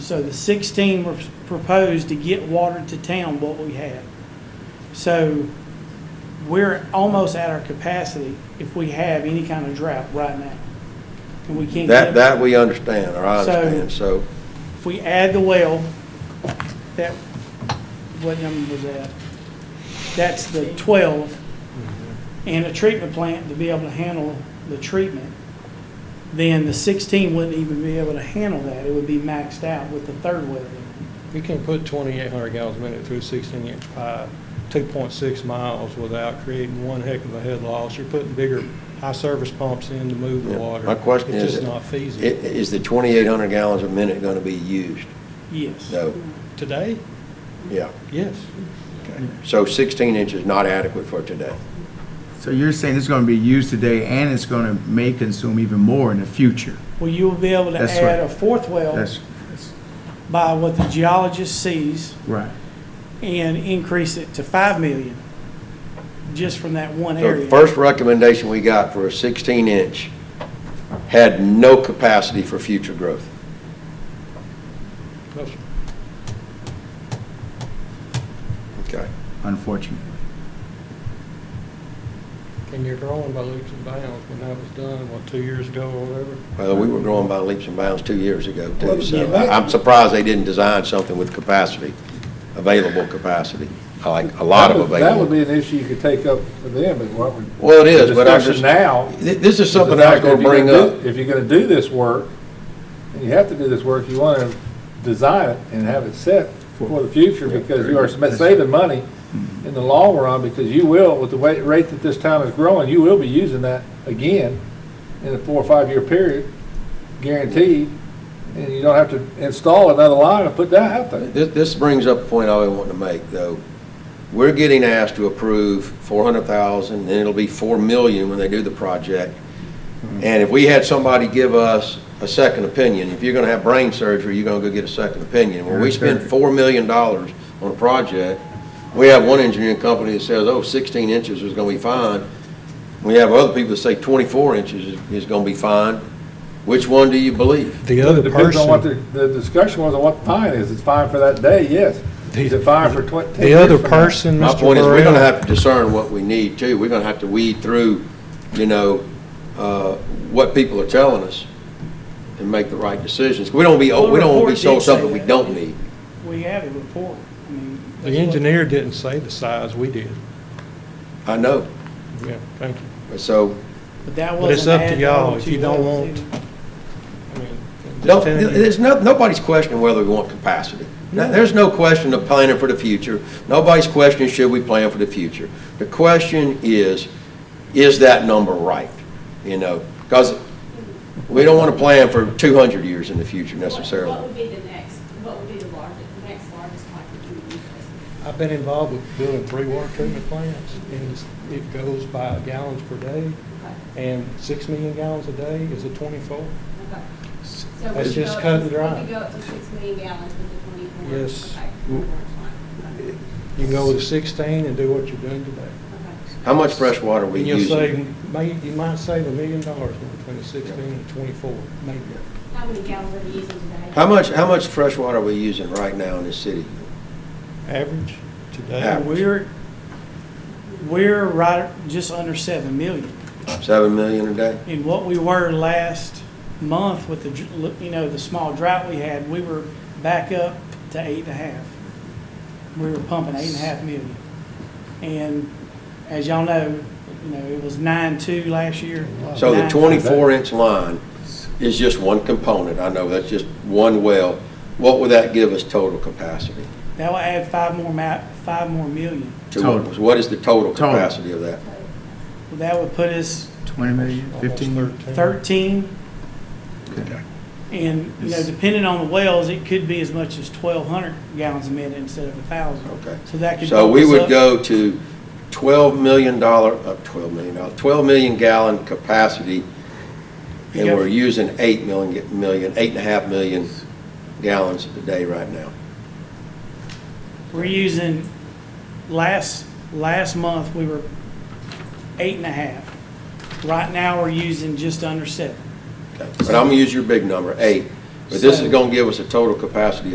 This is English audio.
So the 16 were proposed to get water to town what we had. So we're almost at our capacity if we have any kind of drought right now. And we can't. That, get- that we understand, or I So- understand, so, If we add the well, that, what number was that? That's the 12. And a treatment plant to be able to handle the treatment, then the 16 wouldn't even be able to handle that. It would be maxed out with the third well. You can put 2,800 gallons a minute through 16-inch pipe, 2.6 miles without creating one heck of a head loss. You're putting bigger high-service pumps in to move Yeah, the water. my question is- It's just not i- feasible. is the 2,800 gallons a minute going to be used? Yes. No, Today, yeah. yes. So 16 inch is not adequate for today. So you're saying it's gonna be used today and it's gonna may consume even more in the future? Well, you will be able to That's add a right. fourth well That's, that's by what the geologist sees right. and increase it to 5 million just from that one So the area. first recommendation we got for a 16 inch had no capacity for future growth. No, sir. Okay. Unfortunately. And you're growing by leaps and bounds. When that was done, what, two years ago or whatever? Well, we were growing by leaps and bounds two years ago Well, too, the so elec- I- I'm surprised they didn't design something with capacity, available capacity, like a lot of That would- That would available. be an issue you could take up for them and what we. Well, it is, but I Discussion just- now. Th- This is the something I was fact that going if to you're bring gonna up. do- If you're gonna do this work, and you have to do this work, you wanna design it and have it set for the future because you are sm- saving money in the long run because you will, with the wa- rate that this town is growing, you will be using that again in a four or five-year period, guaranteed. And you don't have to install another line and put that out there. This, this brings up a point I was wanting to make, though. We're getting asked to approve four hundred thousand, and it'll be four million when they do the project. And if we had somebody give us a second opinion, if you're gonna have brain surgery, you're gonna go get a second opinion. When we spend four million dollars on a project, we have one engineering company that says, oh, sixteen inches is gonna be fine. We have other people that say twenty-four inches is, is gonna be fine. Which one do you believe? The Well, other It Depends on what the, person, the discussion was on what the fine is. It's fine for that day, yes. The- Is it fine for twen- ten the years other from now? person, My Mr. point is, we're gonna Burrell, have to discern what we need too. We're gonna have to weed through, you know, uh, what people are telling us and make the right decisions. We don't be, we don't wanna be sold something we don't need. We have a report. I mean, that's the what- engineer didn't say the size, we did. I know. Yeah, thank you. So, But that But it's wasn't up to added y'all on if to you don't those want- either. I mean, don't, just telling you. there's no, nobody's questioning whether we want capacity. No- There's no question of planning for the future. Nobody's questioning should we plan for the future. The question is, is that number right? You know, because we don't wanna plan for two hundred years in the future What- necessarily. What would be the next, what would be the largest, the next largest pipe that you would use? I've been involved with building three water treatment plants, and it's- it goes by gallons per day, Okay, and six million gallons a day is a twenty-four. okay. So we That's could just go up cut to- and dry. We could go up to six million gallons with the twenty-four. Yes. Okay, Mm-hmm. 24 line. Okay, You can go to sixteen and do what you're doing today. okay. How much fresh water are we And you'll save, using? may- you might save a million dollars between the sixteen and twenty-four, maybe. How many gallons are you using today? How much, how much fresh water are we using right now in this city? Average Yeah. today, And We're, we're right, just under seven million. Seven million a day? And what we were last month with the, dr- you know, the small drought we had, we were back up to eight and a half. We were pumping eight and a half million. And as y'all know, you know, it was nine-two last year. So the Nine- twenty-four inch line is just one component, I know, that's just one well. What would that give us total capacity? That will add five more ma, five more million. To what- Total. What is the total Total. capacity of that? That would put us Twenty million, almost fifteen? thirteen. thirteen Okay. And, you know, It's- depending on the wells, it could be as much as twelve hundred gallons a minute instead of a thousand. Okay. So that could. So we bump us would up. go to twelve million dollar, uh, twelve million dollar, twelve million gallon capacity, You and go- we're using eight million, million, eight and a half million gallons a day right now. We're using, last, last month, we were eight and a half. Right now, we're using just under seven. Okay, But I'm gonna use your big number, eight. But this is So- gonna give us a total capacity